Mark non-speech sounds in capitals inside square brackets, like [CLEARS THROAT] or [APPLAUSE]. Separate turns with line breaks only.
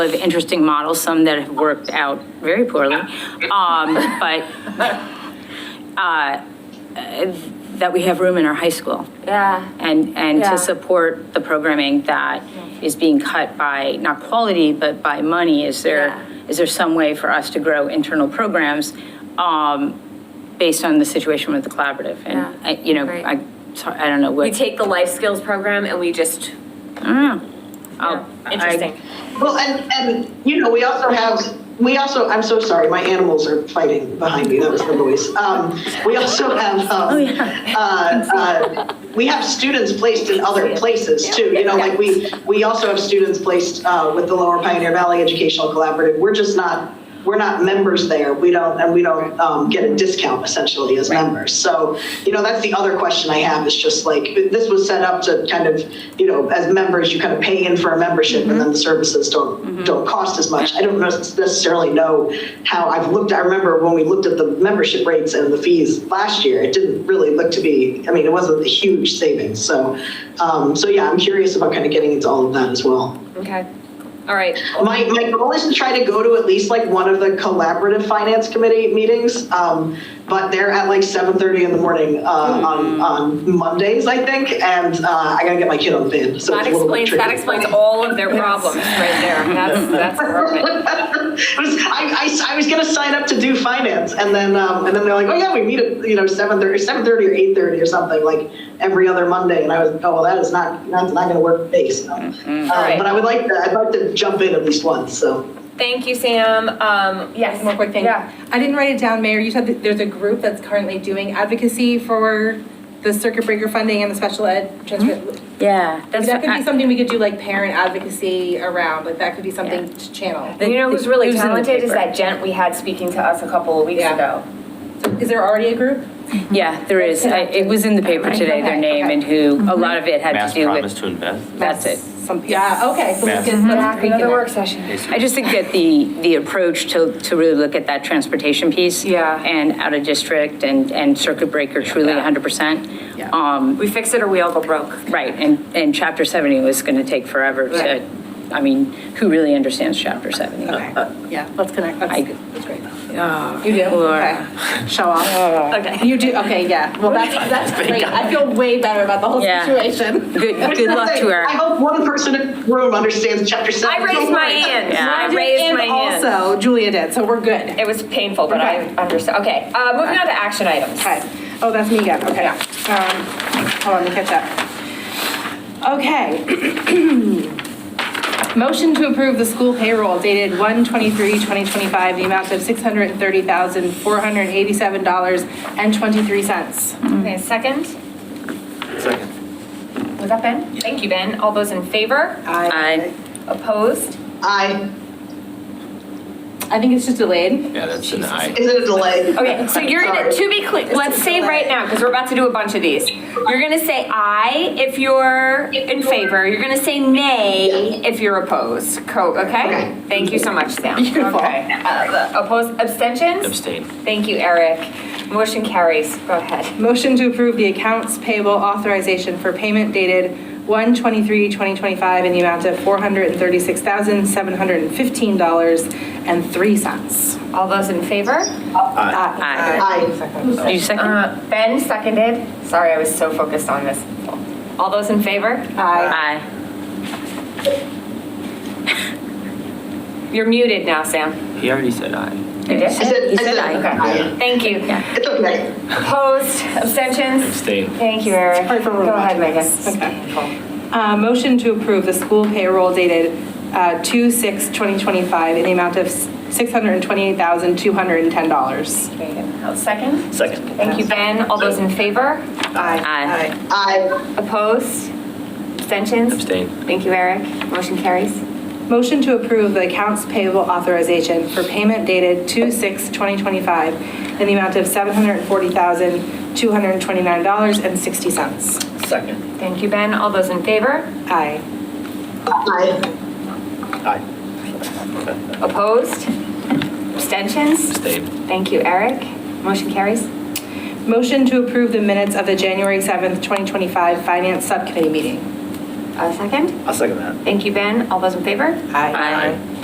of interesting models, some that have worked out very poorly, um, but, uh, that we have room in our high school
Yeah.
and, and
Yeah.
to support the programming that is being cut by, not quality, but by money. Is there,
Yeah.
is there some way for us to grow internal programs um, based on the situation with the collaborative?
Yeah.
And, I- you know,
Right.
I, sorry, I don't know what.
We [LAUGHS] take the life skills program and we just,
I'll- Mm. Oh, I-
interesting.
Well, and, and, you know, we also have, we also, I'm so sorry, my animals are fighting behind me, that was the noise. Um, we also have, um, uh, uh, we have students placed in other places too, you know, like we, we also have students placed, uh, with the Lower Pioneer Valley Educational Collaborative, we're just not, we're not members there, we don't, and we don't, um, get a discount essentially as members. So, you know, that's the other question I have, is just like, this was set up to kind of, you know, as members, you kind of pay in for a membership, and then the services
Mm-hmm.
don't, don't cost as much. I don't necessarily know how, I've looked, I remember when we looked at the membership rates and the fees last year, it didn't really look to be, I mean, it wasn't a huge savings, so, um, so yeah, I'm curious about kind of getting into all of that as well.
okay, all right.
My, my goal is to try to go to at least like one of the collaborative finance committee meetings, um, but they're at like 7:30 in the morning uh, on,
Mm-hmm.
on Mondays, I think, and uh, I gotta get my kid on the van, so
That
it's a little bit
explains, that
tricky.
explains all of their problems right there. That's,
[LAUGHS]
that's perfect.
I was, I, I, I was gonna sign up to do finance, and then, um, and then they're like, oh yeah, we meet at, you know, 7:30, 7:30 or 8:30 or something, like, every other Monday, and I was, oh, well, that is not, that's not gonna work for me, so.
Mm-hmm.
Um,
Uh, But I would like, to- I'd like to jump in at least once, so.
Thank you, Sam. Um, yes.
One more quick thing.
Yeah.
I didn't write it down, Mayor. You said that there's a group that's currently doing advocacy for the circuit breaker funding and the special ed transfer.
Yeah, Mm-hmm. that's.
That could
I-
be something we could do like parent advocacy around, like that could be something
Yeah.
to channel.
You know who's really
It was in the
talented is
paper.
that gent we had speaking to us a couple of weeks
Yeah.
ago.
Is there already a group?
Yeah, there is. I- It was in the paper today, their
Okay,
name
okay.
and who, a lot of it had
Mass
to do
promise
with,
to invest.
that's it.
Some, yeah, okay. so we
Yes.
could-
Mhm.
let's
Mm-hmm.
tweak it.
session.
I just think that the, the approach to, to really look at that transportation piece.
Yeah.
And out of district and, and circuit breaker truly
Yeah.
100%.
Yeah.
Um,
We fix it or we all go broke.
Right, and, and chapter 70 was going to take forever
Right.
to, I mean, who really understands chapter Uh, 70?
Okay, Uh, yeah, let's connect.
I-
That's that's great. You do?
Laura.
Okay. Show off. Okay. You do, okay, yeah. Well, that's, that's great. I feel way better about the whole
Yeah.
situation.
Good, good luck to
[LAUGHS] I
her.
hope one person in the room understands chapter
I
seven.
raised my hand.
Yeah.
I
I did,
raised my hand.
And also Julia did, so we're good.
It was painful, but I
Okay.
understand. Okay, uh, moving on to action items.
Okay. Oh, that's me again, okay. Um, hold on, let me catch up. Okay. [CLEARS THROAT] Motion to approve the school payroll dated 1/23/2025, the amount of $630,487.23.
Okay, second?
Second.
Was that Ben? Thank you, Ben. All those in favor?
I,
Opposed?
I,
I think it's just delayed.
Yeah, that's an aye.
is it a delay?
Okay, so you're gonna, to be clear, let's say right now, because we're about to do a bunch of these. You're gonna say aye if you're in favor. You're gonna say nay if you're opposed. Co, okay? Thank you so much, Sam.
Beautiful.
Okay. Uh, Opposed, abstentions?
Abstain.
Thank you, Eric. Motion carries. Go ahead.
Motion to approve the accounts payable authorization for payment dated 1/23/2025 in the amount of $436,715.03.
All those in favor?
I,
Aye.
you second?
Uh, Ben seconded. Sorry, I was so focused on this. All those in favor?
I,
You're muted now, Sam.
He already said aye.
You did?
I said- I
He
said
said aye.
Okay, thank you.
It's okay.
Opposed, abstentions?
Abstain.
Thank you, Eric.
Sorry for
Go ahead,
roboting
Megan.
this. Okay. Uh, Motion to approve the school payroll dated uh, 2/6/2025 in the amount of $628,210.
Megan, I'll Second?
Second.
Thank you, Ben. All those in favor?
Aye.
I,
Opposed, abstentions?
Abstain.
Thank you, Eric. Motion carries.
Motion to approve the accounts payable authorization for payment dated 2/6/2025 in the amount of $740,229.60.
Second.
Thank you, Ben. All those in favor?
Aye.
I,
Aye.
Opposed, abstentions?
Abstain.
Thank you, Eric. Motion carries.
Motion to approve the minutes of the January 7th, 2025 Finance Subcommittee meeting.
A second?
I'll second that.
Thank you, Ben. All those in favor?
Aye.